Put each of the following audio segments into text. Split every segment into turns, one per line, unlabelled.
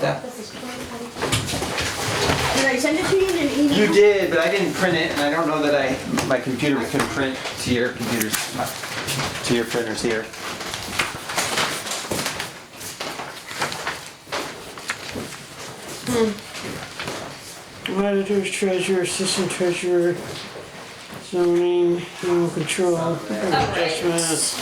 that.
Did I send it to you in an
You
email?
did, but I didn't print it, and I don't know that I, my computer can print to your computers, to your printers here.
Auditor's treasurer, assistant treasurer, zoning, animal control, adjustments.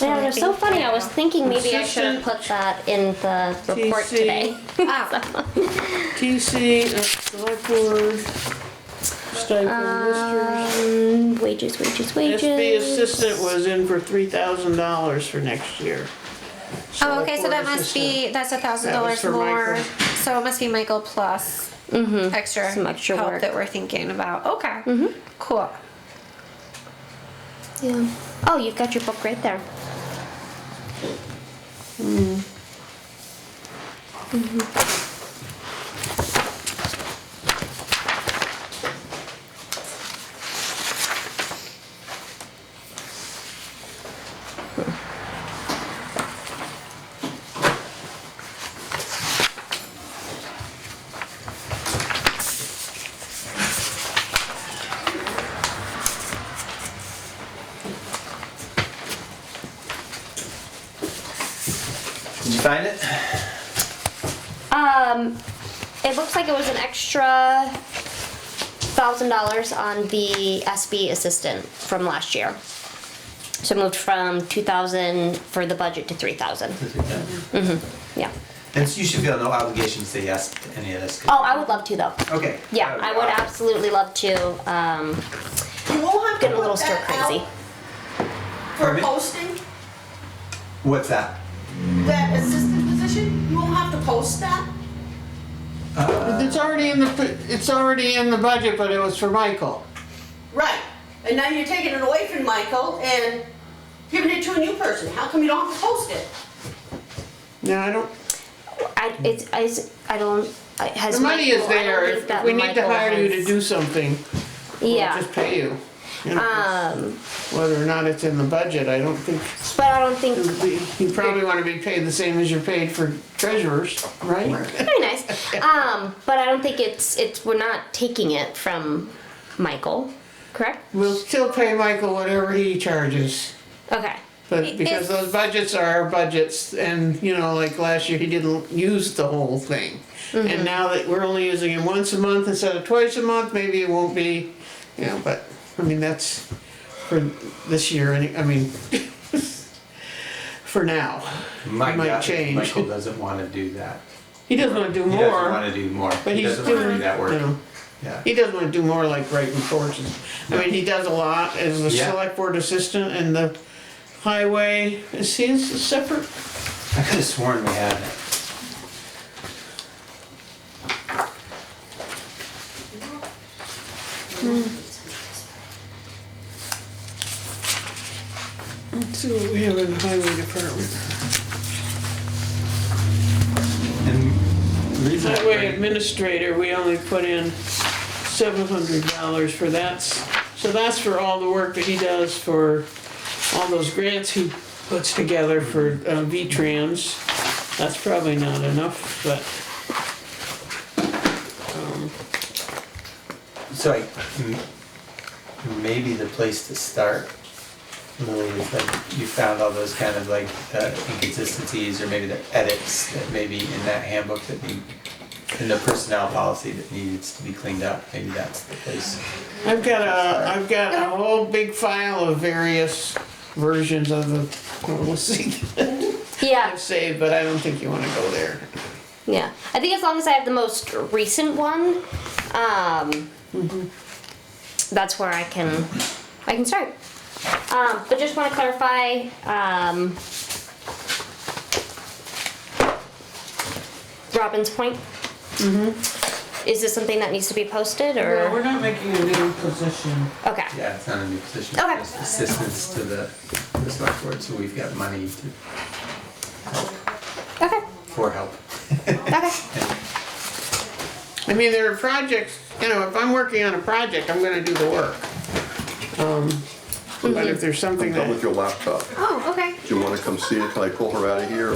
Yeah, it was so funny. I was thinking maybe I should have put that in the report
TC.
today.
TC, uh, select board, stipend listers.
Um, wages, wages, wages.
SB assistant was in for three thousand dollars for next year.
Oh, okay, so
Select
that
board
must be, that's a thousand
That was
dollars
for
more,
Michael.
so it must be Michael plus extra
Mm-hmm. Some extra
help
work. Mm-hmm.
that we're thinking about, okay, cool.
Yeah. Oh, you've got your book right there.
Did you find it?
Um, it looks like it was an extra thousand dollars on the SB assistant from last year. So it moved from two thousand for the budget to three thousand. Yeah.
And so you should feel no obligation to say yes to any of this.
Oh, I would love to though.
Okay.
Yeah, I
Uh,
would absolutely love to. Um,
We'll have to
get a little
put
stir
that
crazy.
out For
Pardon me?
posting,
What's that?
that assistant position, you won't have to post that?
It's already in the, it's already in the budget, but it was for Michael.
Right, and now you're taking it away from Michael and giving it to a new person, how come you don't have to post it?
No, I don't,
I it's, I I don't. I- Has
the money is
Michael- I don't
there,
think
if
that
if we need to
Michael
hire you to
has-
do something, we'll
Yeah.
just pay you. You know,
Um,
Whether or not it's in the budget, I don't think,
but I don't think
you probably wanna be paid the same as you're paid for treasurers, right?
very nice. Um, but I don't think it's it's we're not taking it from Michael, correct?
We'll still pay Michael whatever he charges.
Okay.
But because
It's-
those budgets are our budgets and, you know, like last year, he didn't use the whole thing.
Mm-hmm.
And now that we're only using it once a month instead of twice a month, maybe it won't be, you know, but, I mean, that's for this year, any- I mean, for now.
My
It might
God,
change.
Michael doesn't want to do that.
He doesn't wanna do
He doesn't want
more,
to do more.
but
He
he's
doesn't want to
doing,
do that
you
work.
know,
Yeah.
he doesn't wanna do more like writing reports. I mean, he does a lot as the
Yeah.
select board assistant and the highway, is he a separate
I could have sworn we had it.
Let's see what we have in the highway department.
And the reason I
Highway
bring-
administrator, we only put in seven hundred dollars for that. So that's for all the work that he does for all those grants he puts together for uh, V-Trans. That's probably not enough, but
So I, m- maybe the place to start, Lily, is like you found all those kind of like uh, inconsistencies or maybe the edits that maybe in that handbook that need, in the personnel policy that needs to be cleaned up, maybe that's the place.
I've got a, I've got a whole big file of various versions of the policy
Yeah.
I've saved, but I don't think you wanna go there.
Yeah. I think as long as I have the most recent one, um, that's where I can I can start. Um, but just want to clarify. Um, Robin's point. Mm-hmm.
Mm-hmm.
Is this something that needs to be posted or
not making a new position.
okay?
Yeah, it's not a new position,
Okay.
it's assistance to the, the select board, so we've got money to,
Okay.
for help.
Okay.
I mean, there are projects, you know, if I'm working on a project, I'm gonna do the work. Um, But if there's something
I'm
that.
done with your laptop.
Oh, okay.
Do you wanna come see it? Can I pull her out of here?